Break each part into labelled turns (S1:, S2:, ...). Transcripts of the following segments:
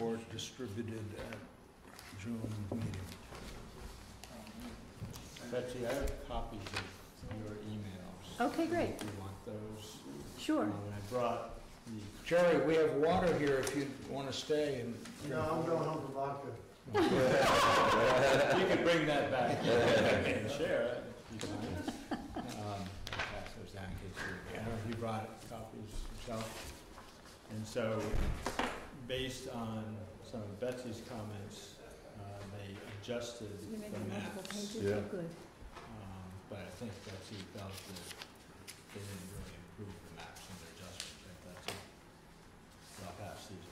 S1: or distributed at June meeting.
S2: Betsy, I have copies of your emails.
S3: Okay, great.
S2: If you want those.
S3: Sure.
S2: Um, and I brought the,
S1: Jerry, we have water here if you want to stay and.
S4: No, I'm going home for vodka.
S2: you can bring that back and share it. if you want. Um, pass those down in case you- I don't know if you brought copies yourself. And so, based on some of Betsy's comments, uh, they adjusted
S3: You're
S2: the
S3: making multiple
S2: maps.
S3: pages,
S5: Yeah.
S3: Oh, good.
S2: Um, But I think Betsy felt that they didn't really improve the maps and their adjustments, if that's it. So I'll pass these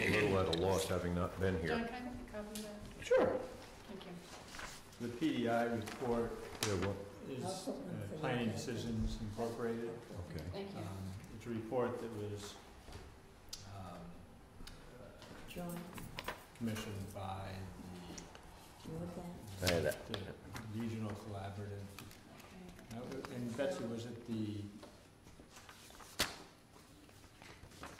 S5: I'm
S2: around.
S5: a little at a loss, having not
S6: John,
S5: been here.
S6: can I have a copy of that?
S1: Sure.
S6: Thank you.
S2: The PDI report
S5: Yeah, well,
S2: is uh, Planning Decisions Incorporated.
S5: okay.
S6: Thank you.
S2: Um, It's a report that was um, uh,
S3: John,
S2: commissioned by
S3: you with that?
S2: the
S5: I had that.
S2: the Regional Collaborative
S3: Uh,
S2: Now, And Betsy, was it the,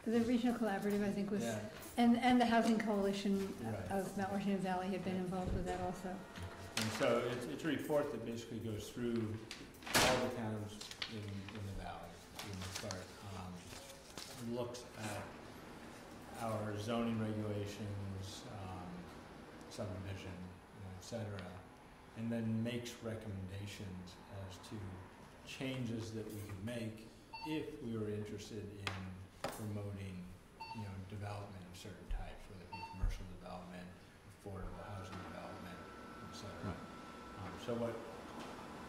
S3: The Regional Collaborative, I think, was,
S2: yeah,
S3: and, and the Housing Coalition uh,
S2: Right.
S3: of Mount Washington Valley had been involved with that also.
S2: and so it's, it's a report that basically goes through all the towns in, in the valley, in the start. um, and Looks at our zoning regulations, um, subdivision, you know, et cetera, and then makes recommendations as to changes that we could make if we were interested in promoting, you know, development of certain types, whether it be commercial development, affordable housing development, et cetera. Um, so what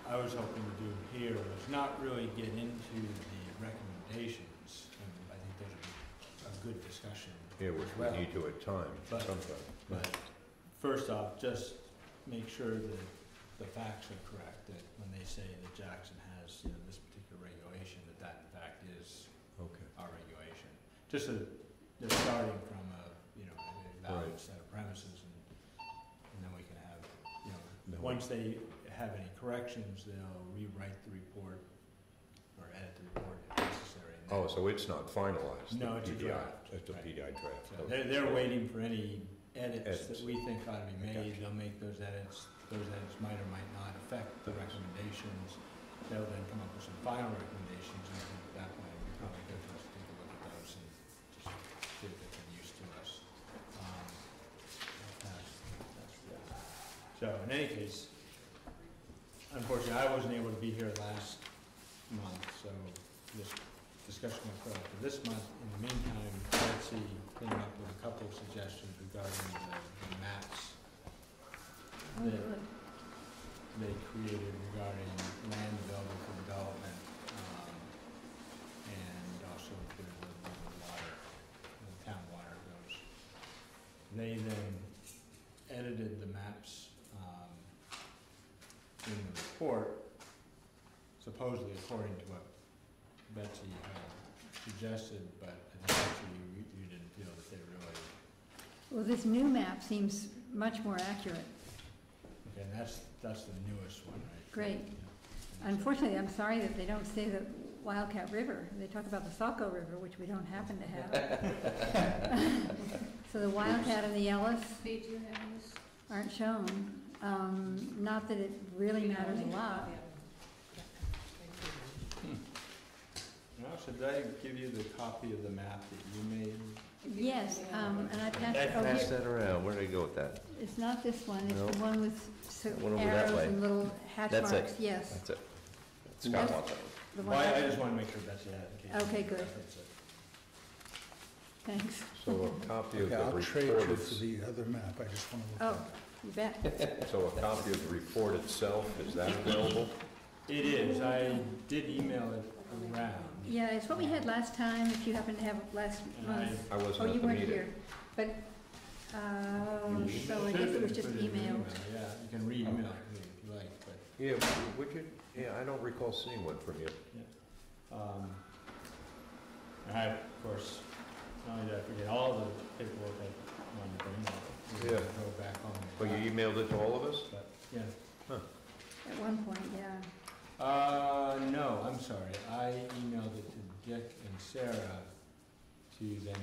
S2: I was hoping to do here was not really get into the recommendations, and I think those would be a good discussion.
S5: Yeah, which
S2: as well.
S5: we need to at times,
S2: But-
S5: sometimes.
S2: But first off, just make sure that the facts are correct, that when they say that Jackson has, you know, this particular regulation, that that in fact is
S5: Okay.
S2: our regulation. Just so that they're starting from a, you know, a valid
S5: Right.
S2: set of premises and, and then we can have, you
S5: Then
S2: know,
S5: we-
S2: once they have any corrections, they'll rewrite the report or edit the report if necessary. and
S5: Oh,
S2: then-
S5: so it's not finalized?
S2: No,
S5: the
S2: it's a
S5: PDI.
S2: draft,
S5: It's a
S2: right.
S5: PDI draft.
S2: So
S5: okay.
S2: They're, they're waiting for any edits
S5: Edits.
S2: that we think ought to be
S5: I
S2: made,
S5: gotcha.
S2: they'll make those edits, those edits might or might not affect the recommendations. They'll then come up with some final recommendations, and I think at that point, it'd be probably good for us to take a look at those and just see if they've been used to us. Um, that's- that's good. So, in any case, unfortunately, I wasn't able to be here last month, so this discussion will go out for this month. In the meantime, Betsy came up with a couple of suggestions regarding the- the maps
S3: Oh,
S2: Yeah.
S3: good.
S2: they created regarding land available for development, um, and also included the the water, the town water goes. They then edited the maps, um, in the report, supposedly according to what Betsy had suggested, but I think actually you, you didn't feel that they really,
S3: Well, this new map seems much more accurate.
S2: okay, and that's, that's the newest one, right?
S3: Great.
S2: Yeah. And so-
S3: Unfortunately, I'm sorry that they don't say the Wildcat River. They talk about the Saco River, which we don't happen to have. So the Wildcat and the Ellis
S6: Lee, do you have this?
S3: aren't shown. Um, Not that it really matters a lot.
S2: Now, should I give you the copy of the map that you made?
S3: Yes, um, and I passed, oh,
S5: Pass
S3: here,
S5: that around, where did I go with that?
S3: it's not this one, it's the
S5: No.
S3: one with so-
S5: One over that
S3: arrows
S5: way.
S3: and little hatch
S5: That's it.
S3: marks, yes.
S5: That's it. Scott
S3: Yes.
S5: wants it.
S3: the
S2: Well,
S3: one.
S2: I I just want to make sure Betsy had it. in case
S3: Okay,
S2: you
S3: good.
S2: reference it.
S3: Thanks.
S5: So a copy of
S1: Okay,
S5: the
S1: I'll trade
S5: report,
S1: you for
S5: is-
S1: the other map, I just want to look
S3: Oh,
S1: at
S3: you bet.
S5: so a copy of the report itself, is that available?
S2: It is, I did email it around.
S3: Yeah, it's what we had last time, if you happen to have it last
S2: And I-
S3: month.
S5: I
S3: Oh,
S5: wasn't
S3: you
S5: at the
S3: weren't
S5: meeting.
S3: here, but, um,
S2: You
S3: so I
S2: should
S3: guess it was
S2: put
S3: just
S2: in an
S3: emailed.
S2: email, Yeah, you can re-email it to me if you like, but,
S5: Yeah, would you, yeah, I don't recall seeing one from you.
S2: um, and I, of course, not only did I forget all the paperwork I wanted to bring, I
S5: Yeah.
S2: go back on.
S5: Well, you e- emailed it to all of us?
S2: But, yeah.
S3: At one point, yeah.
S2: Uh, no, I'm sorry. I emailed it to Dick and Sarah to then